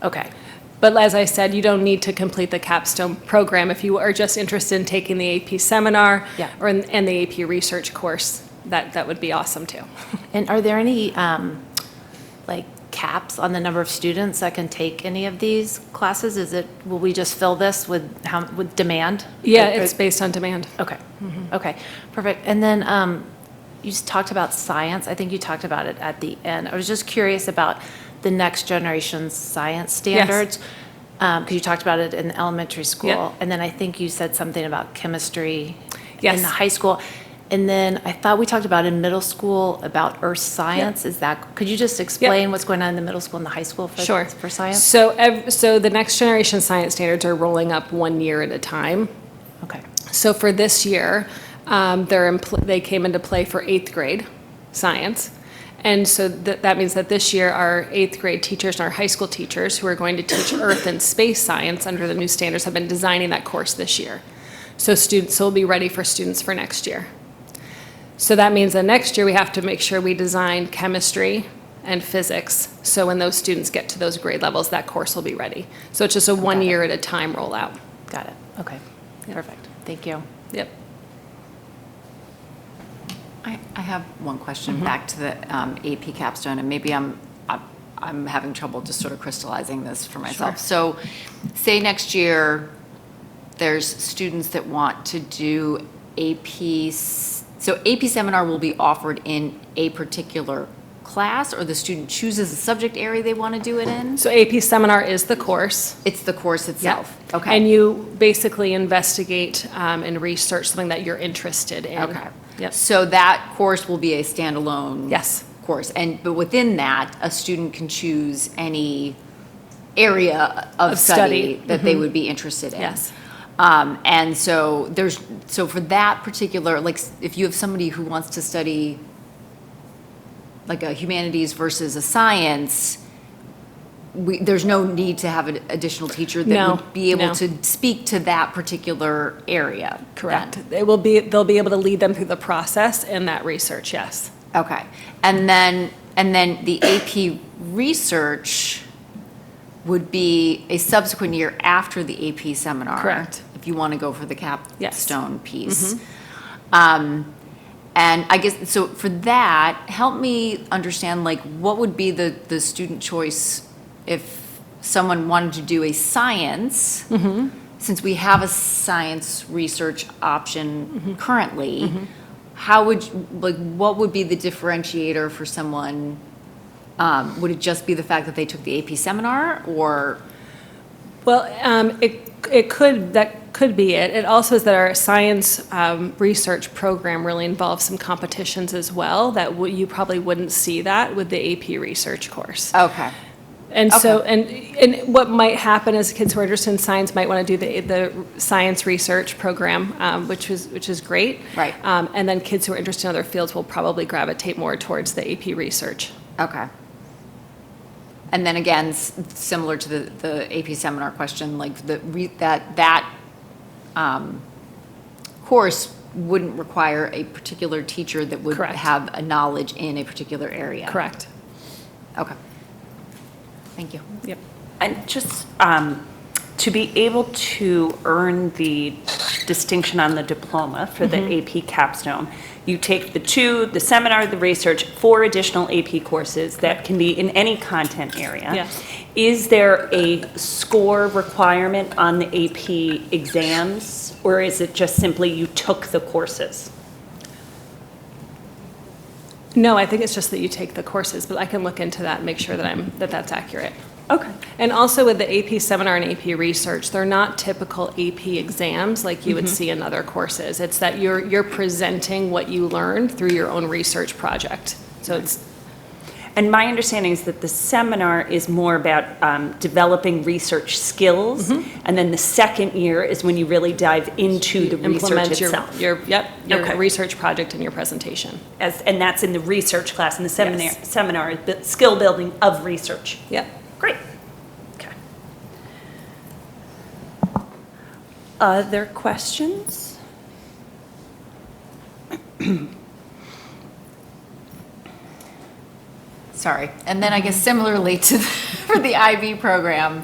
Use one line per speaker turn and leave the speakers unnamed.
Okay. But as I said, you don't need to complete the capstone program. If you are just interested in taking the AP seminar
Yeah.
or, in- and the AP research course, that, that would be awesome too.
And are there any, um, like, caps on the number of students that can take any of these classes? Is it, will we just fill this with, how with demand?
Yeah, it's based on demand.
Okay,
Mm-hmm.
okay, perfect. And then um, you just talked about science. I think you talked about it at the end. I was just curious about the next generation science standards. Because you talked about it in the elementary school. And then I think you said something about chemistry in
Yes.
the high school. And then I thought we talked about in middle school about earth science. Is that, could you just explain what's going on in the middle school and the high school for
Sure.
for science?
So, ev- so the next generation science standards are rolling up one year at a time.
Okay,
So for this year, um, they're in pl- they came into play for eighth grade science. And so th- that means that this year, our eighth grade teachers and our high school teachers who are going to teach earth and space science under the new standards have been designing that course this year. So students will be ready for students for next year. So that means that next year we have to make sure we design chemistry and physics. So when those students get to those grade levels, that course will be ready. So it's just a one year at a time rollout.
got it. Okay, perfect. Thank you.
Yep.
I, I have one question back to the um, AP capstone, and maybe I'm, I'm- I'm having trouble just sort of crystallizing this for myself. So say next year, there's students that want to do AP, s- so AP seminar will be offered in a particular class, or the student chooses a subject area they want to do it in?
So AP seminar is the course.
It's the course itself? Okay.
And you basically investigate um, and research something that you're interested in.
Okay.
Yep.
So that course will be a standalone?
Yes.
Course, and, but within that, a student can choose any area of
Of study. Mm-hmm.
study that they would be interested in.
Yes.
Um, and so there's, so for that particular, like, s- if you have somebody who wants to study like a humanities versus a science, we, there's no need to have an additional teacher that
No,
would be
no.
able to speak to that particular area.
Correct.
then.
It will be, they'll be able to lead them through the process and that research, yes.
Okay. And then, and then the AP research would be a subsequent year after the AP seminar.
Correct.
If you want to go for the capstone piece. Um, And I guess, so for that, help me understand, like, what would be the, the student choice if someone wanted to do a science? Since we have a science research option currently, how would, you- like, what would be the differentiator for someone? Um, Would it just be the fact that they took the AP seminar, or?
Well, um, it, it could, that could be it. It also is that our science um, research program really involves some competitions as well that w- you probably wouldn't see that with the AP research course.
Okay.
And so, and, and what might happen is kids who are interested in science might want to do the, the science research program, um, which is, which is great.
Right.
Um, and then kids who are interested in other fields will probably gravitate more towards the AP research.
Okay. And then again, s- similar to the, the AP seminar question, like the, re- that, that um, course wouldn't require a particular teacher that would
Correct.
have a knowledge in a particular area.
Correct.
Okay. Thank you.
Yep.
And just um, to be able to earn the distinction on the diploma for the AP capstone, you take the two, the seminar, the research, four additional AP courses that can be in any content area.
Yes.
Is there a score requirement on the AP exams, or is it just simply you took the courses?
No, I think it's just that you take the courses, but I can look into that and make sure that I'm, that that's accurate.
Okay.
And also with the AP seminar and AP research, they're not typical AP exams like you would see in other courses. It's that you're, you're presenting what you learned through your own research project. So it's,
And my understanding is that the seminar is more about um, developing research skills,
Mm-hmm.
and then the second year is when you really dive into the research
implement your,
itself.
your, yep, your
Okay.
research project and your presentation.
As- and that's in the research class and the seminar,
Yes.
seminar, the skill building of research.
Yep.
Great. Okay. Other questions?
sorry. And then I guess similarly to, the- for the IB program,